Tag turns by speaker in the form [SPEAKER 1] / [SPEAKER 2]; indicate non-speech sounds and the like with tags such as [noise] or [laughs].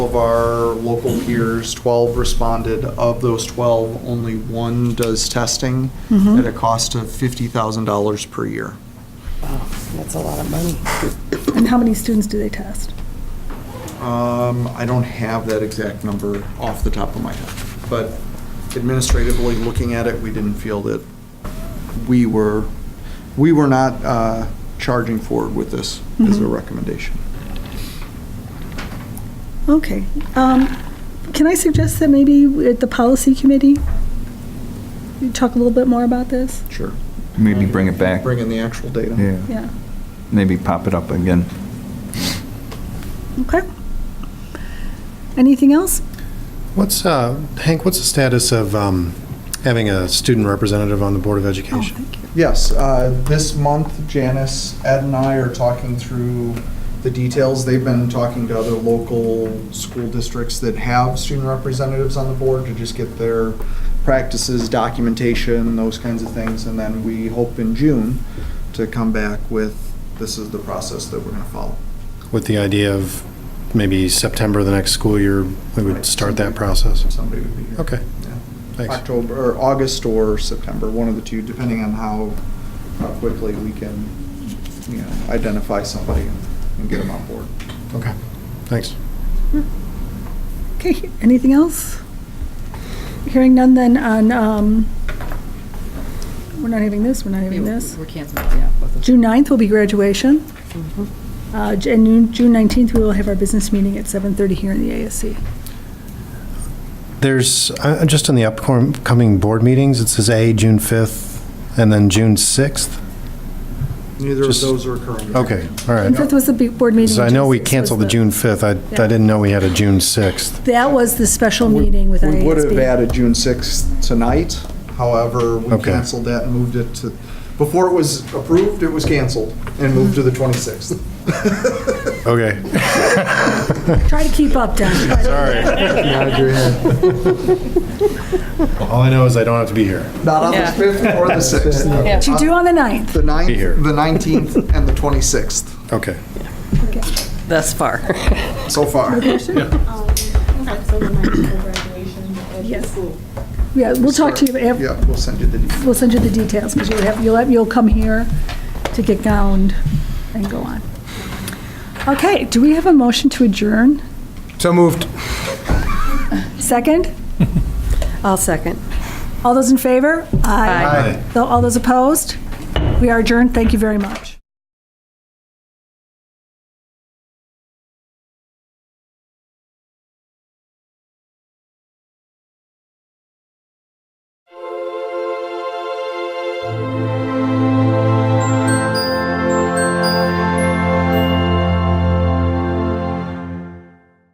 [SPEAKER 1] Of our local peers, 12 responded. Of those 12, only one does testing at a cost of $50,000 per year.
[SPEAKER 2] Wow, that's a lot of money.
[SPEAKER 3] And how many students do they test?
[SPEAKER 1] Um, I don't have that exact number off the top of my head, but administratively, looking at it, we didn't feel that we were, we were not uh, charging forward with this as a recommendation.
[SPEAKER 3] Okay. Um, Can I suggest that maybe at the policy committee, you talk a little bit more about this?
[SPEAKER 1] Sure.
[SPEAKER 4] Maybe bring it back.
[SPEAKER 1] Bring in the actual data.
[SPEAKER 4] Yeah,
[SPEAKER 3] Yeah,
[SPEAKER 4] maybe pop it up again.
[SPEAKER 3] okay. Anything else?
[SPEAKER 5] What's, uh, Hank, what's the status of um, having a student representative on the Board of
[SPEAKER 3] Oh,
[SPEAKER 5] Education?
[SPEAKER 3] thank you.
[SPEAKER 1] Yes, uh, this month Janice, Ed and I are talking through the details. They've been talking to other local school districts that have student representatives on the board to just get their practices, documentation, those kinds of things. And then we hope in June to come back with, this is the process that we're going to follow.
[SPEAKER 5] With the idea of maybe September of the next school year, we would start that process?
[SPEAKER 1] Somebody would be here.
[SPEAKER 5] Okay,
[SPEAKER 1] Yeah.
[SPEAKER 5] thanks.
[SPEAKER 1] October, or August or September, one of the two, depending on how, how quickly we can, you know, identify somebody and get them on board.
[SPEAKER 5] Okay, thanks.
[SPEAKER 3] Okay, anything else? Hearing none then on, um, we're not having this, we're not having this.
[SPEAKER 2] We're canceling, yeah. both of them.
[SPEAKER 3] June 9th will be graduation.
[SPEAKER 2] Mm-hmm.
[SPEAKER 3] Uh, J- And June- June 19th, we will have our business meeting at 7:30 here in the ASC.
[SPEAKER 5] There's, uh, just in the upcoming board meetings, it says A, June 5th, and then June 6th?
[SPEAKER 1] Neither of
[SPEAKER 5] Just-
[SPEAKER 1] those are occurring.
[SPEAKER 5] Okay,
[SPEAKER 3] June
[SPEAKER 5] all right.
[SPEAKER 3] 5th was the big board meeting.
[SPEAKER 5] 'Cause I know we
[SPEAKER 3] June 6th was
[SPEAKER 5] canceled the June 5th, I I didn't know we had a June 6th.
[SPEAKER 3] That was the special meeting with
[SPEAKER 1] We would have
[SPEAKER 3] IASB.
[SPEAKER 1] added June 6th tonight, however, we
[SPEAKER 5] Okay.
[SPEAKER 1] canceled that and moved it to, before it was approved, it was canceled and moved to the 26th.
[SPEAKER 5] Okay,
[SPEAKER 3] Try to keep up,
[SPEAKER 1] [laughs]
[SPEAKER 3] Don.
[SPEAKER 5] all I know is I don't have to be here.
[SPEAKER 1] [laughs] Not on the
[SPEAKER 2] Yeah.
[SPEAKER 1] 5th or the 6th.
[SPEAKER 3] But you do on the 9th.
[SPEAKER 1] The 9th,
[SPEAKER 5] Be here.
[SPEAKER 1] the 19th, and the 26th,
[SPEAKER 5] Okay.
[SPEAKER 2] Thus far.
[SPEAKER 1] so far.
[SPEAKER 6] Um, so the night before [coughs] graduation at the
[SPEAKER 3] Yes.
[SPEAKER 6] school.
[SPEAKER 3] Yeah, we'll talk to you, af-
[SPEAKER 1] Yeah, we'll send you the details.
[SPEAKER 3] we'll send you the details, because you'll have, you'll, have- you'll come here to get gowned and go on. Okay, do we have a motion to adjourn?
[SPEAKER 5] So moved.
[SPEAKER 3] Second?
[SPEAKER 2] I'll second.
[SPEAKER 3] All those in favor?
[SPEAKER 2] Aye.
[SPEAKER 3] Tho- All those opposed? We are adjourned. Thank you very much.